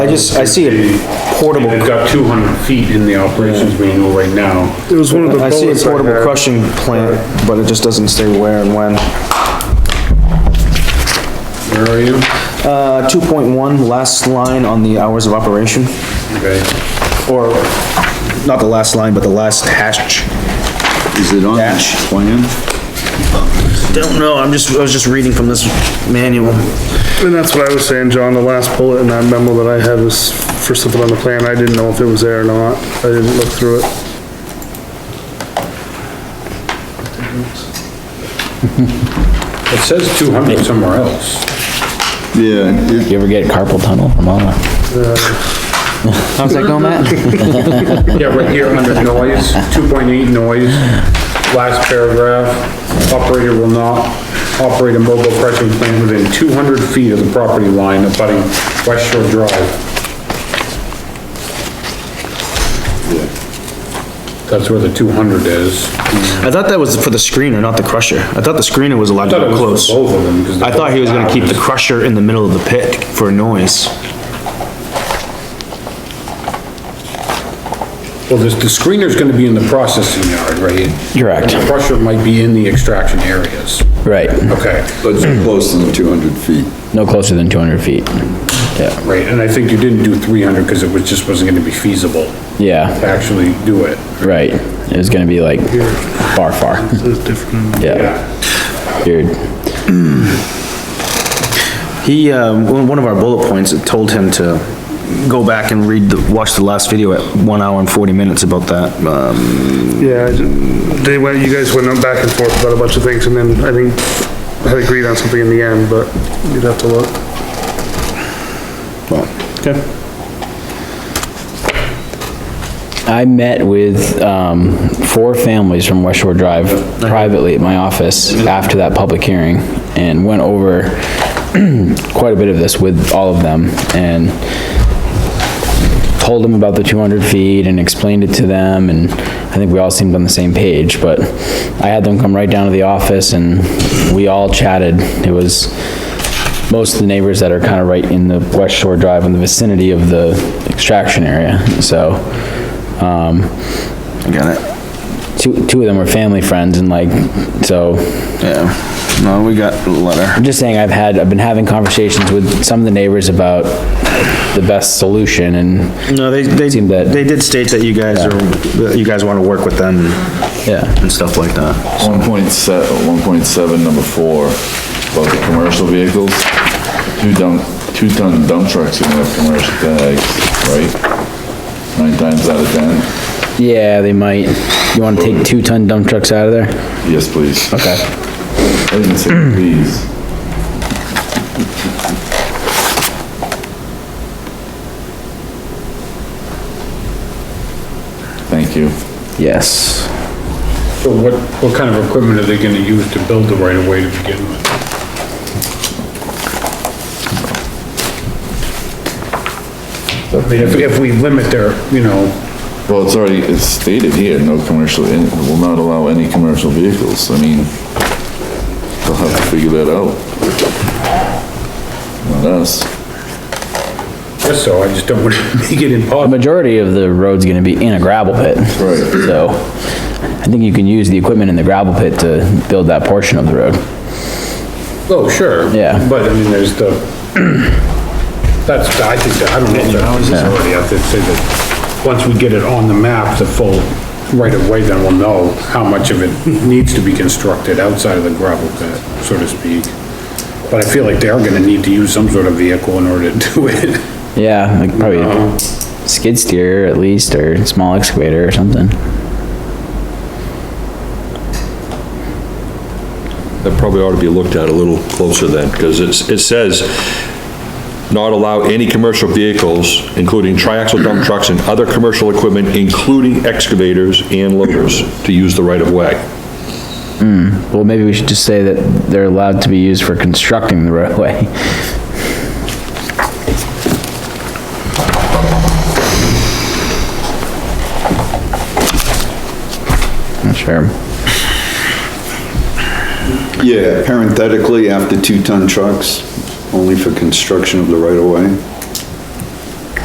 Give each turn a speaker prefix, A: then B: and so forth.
A: I just, I see a portable,
B: They've got two hundred feet in the operations manual right now.
C: It was one of the
A: I see a
C: bullets right
A: portable
C: there.
A: crushing plant, but it just doesn't say where and when.
B: Where are you?
A: Uh, two point one, last line on the hours of operation,
B: Okay.
A: or, not the last line, but the last hash.
D: Is it on the
A: Dash.
D: plan?
A: Don't know, I'm just, I was just reading from this manual.
C: And that's what I was saying, John, the last bullet in that memo that I had was for something on the plan. I didn't know if it was there or not. I didn't look through it.
B: It says two hundred somewhere else.
D: Yeah, it-
E: You ever get carpal tunnel from Mama?
A: How's that going, Matt?
B: Yeah, right here under noise, two point eight noise, last paragraph, operator will not operate a mobile crushing plant within two hundred feet of the property line abutting West Shore Drive. That's where the two hundred is.
A: I thought that was for the screener, not the crusher. I thought the screener was allowed
B: I
A: to
B: thought it
A: go
B: was for
A: close.
B: both of them, 'cause the
A: I thought he was gonna keep the crusher in the middle of the pit for noise.
B: Well, this, the screener's gonna be in the processing yard, right?
E: Correct.
B: And The crusher might be in the extraction areas.
E: Right,
B: Okay,
D: but it's close to the 200 feet.
E: no closer than 200 feet. Yeah,
B: right, and I think you didn't do three hundred because it was, just wasn't gonna be feasible to
E: yeah,
B: actually do it.
E: right. It was gonna be like far, far. Yeah,
B: Yeah.
E: weird.
A: He, um, one one of our bullet points, it told him to go back and read, the watch the last video at one hour and forty minutes about that, um,
C: Yeah, I ju- they went, you guys went back and forth about a bunch of things and then I think I had agreed on something in the end, but you'd have to look.
E: I met with, um, four families from West Shore Drive privately at my office after that public hearing and went over quite a bit of this with all of them and told them about the two hundred feet and explained it to them and I think we all seemed on the same page, but I had them come right down to the office and we all chatted. It was most of the neighbors that are kind of right in the West Shore Drive in the vicinity of the extraction area, so, um,
A: got it?
E: two, two of them were family friends and like, so,
A: Yeah, no, we got the letter.
E: I'm just saying I've had, I've been having conversations with some of the neighbors about the best solution and,
A: No, they, they,
E: Seemed that-
A: they did state that you guys are, that you guys wanna work with them
E: yeah,
A: and stuff like that.
F: 1.7, 1.7, number four, about the commercial vehicles. Two dump, two-ton dump trucks are gonna have commercial tags, right? Nine times out of 10.
E: yeah, they might. You wanna take two-ton dump trucks out of there?
F: Yes, please.
E: Okay.
F: I didn't say please. Thank you.
E: Yes.
B: So what, what kind of equipment are they gonna use to build the right of way to begin with? I mean, if, if we limit their, you know,
F: Well, it's already, it's stated here, no commercial, in- will not allow any commercial vehicles. I mean, they'll have to figure that out. Not us.
B: just so, I just don't wanna make it
E: The
B: impossible.
E: majority of the road's gonna be in a gravel pit.
F: Right.
E: So, I think you can use the equipment in the gravel pit to build that portion of the road.
B: Oh, sure.
E: Yeah.
B: But I mean, there's the, that's, I think, that- I don't know, if that's already out there, say that, once we get it on the map, the full right of way, then we'll know how much of it needs to be constructed outside of the gravel pit, so to speak. But I feel like they are gonna need to use some sort of vehicle in order to do it.
E: Yeah, like probably a skid steer at least, or a small excavator or something.
G: That probably ought to be looked at a little closer then, because it's, it says, not allow any commercial vehicles, including triaxle dump trucks and other commercial equipment, including excavators and loaders, to use the right-of-way.
E: Well, maybe we should just say that they're allowed to be used for constructing the roadway. Not sure.
D: Yeah, parenthetically, after two-ton trucks, only for construction of the right-of-way.